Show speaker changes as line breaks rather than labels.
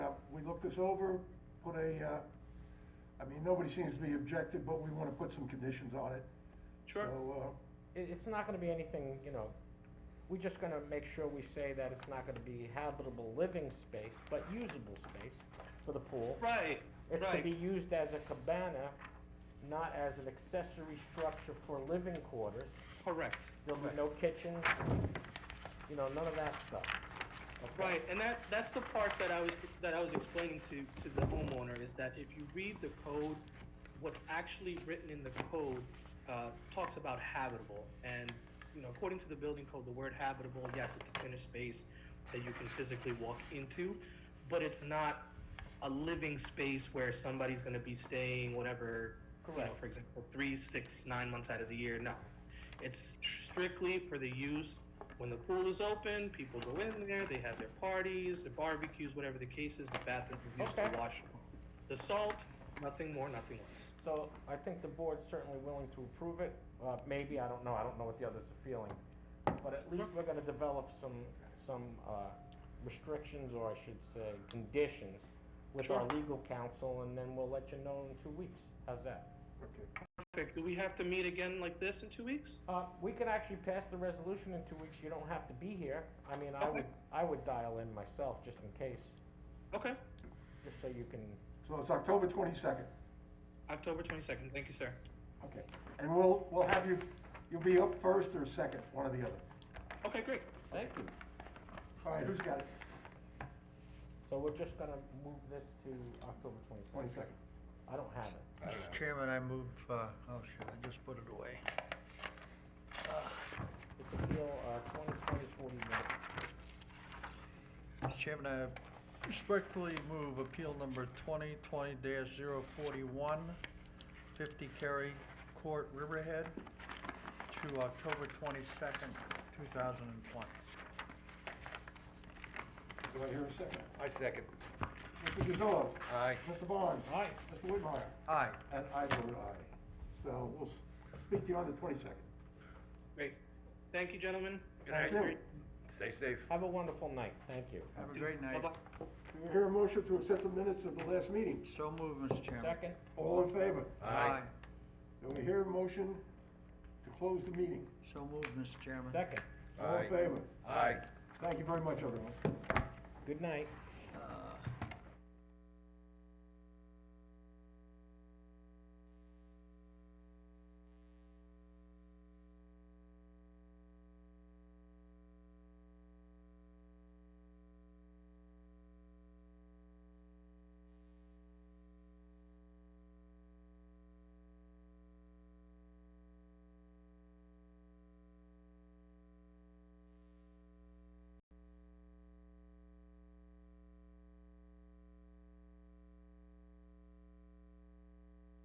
Uh, we look this over, put a, uh, I mean, nobody seems to be objective, but we wanna put some conditions on it.
Sure.
So, uh,
It, it's not gonna be anything, you know, we're just gonna make sure we say that it's not gonna be habitable living space, but usable space for the pool.
Right,
It's to
right.
be used as a cabana, not as an accessory structure for living quarters.
Correct.
There'll be
Right.
no kitchen, you know, none of that stuff. Okay?
Right, and that, that's the part that I was, that I was explaining to, to the homeowner, is that if you read the code, what's actually written in the code, uh, talks about habitable, and, you know, according to the building code, the word habitable, yes, it's a finished space that you can physically walk into, but it's not a living space where somebody's gonna be staying whatever, you know,
Correct.
for example, three, six, nine months out of the year, no. It's strictly for the use when the pool is open, people go in there, they have their parties, their barbecues, whatever the case is, the bathroom is used
Okay.
to wash the salt, nothing more, nothing less.
So I think the board's certainly willing to approve it, uh, maybe, I don't know, I don't know what the others are feeling. But at least we're gonna develop some, some, uh, restrictions, or I should say, conditions with our
Sure.
legal counsel, and then we'll let you know in two weeks, how's that?
okay.
Perfect, do we have to meet again like this in two weeks?
Uh, we can actually pass the resolution in two weeks, you don't have to be here, I mean, I would,
Okay.
I would dial in myself, just in case,
Okay,
just so you can,
So it's October twenty-second,
October twenty-second, thank you, sir.
okay. And we'll, we'll have you, you'll be up first or second, one or the other.
Okay, great.
thank you.
All right, who's got it?
So we're just gonna move this to October twenty-second.
Twenty-second.
I don't have it.
Mr. Chairman, I move, uh, oh, shoot, I just put it away.
It's appeal, uh, twenty twenty forty-one.
Mr. Chairman, I respectfully move appeal number twenty twenty 41 50 Cary Court, Riverhead, to October twenty-second, two thousand and twenty.
Do I hear a second?
I second.
Mr. Gazillo?
Aye.
Mr. Barnes?
Aye.
Mr. Whitmire?
Aye.
And I vote aye. So we'll s- speak to you on the twenty-second.
Great. Thank you, gentlemen.
Good
night.
Great.
Stay safe.
Have a wonderful night, thank you.
Have a great night.
Bye-bye.
Do we hear a motion to accept the minutes of the last meeting?
So moved, Mr. Chairman.
Second,
All in favor?
Aye.
Do we hear a motion to close the meeting?
So moved, Mr. Chairman.
second,
All in
Aye.
favor?
Aye.
Thank you very much, everyone.
good night.
Uh,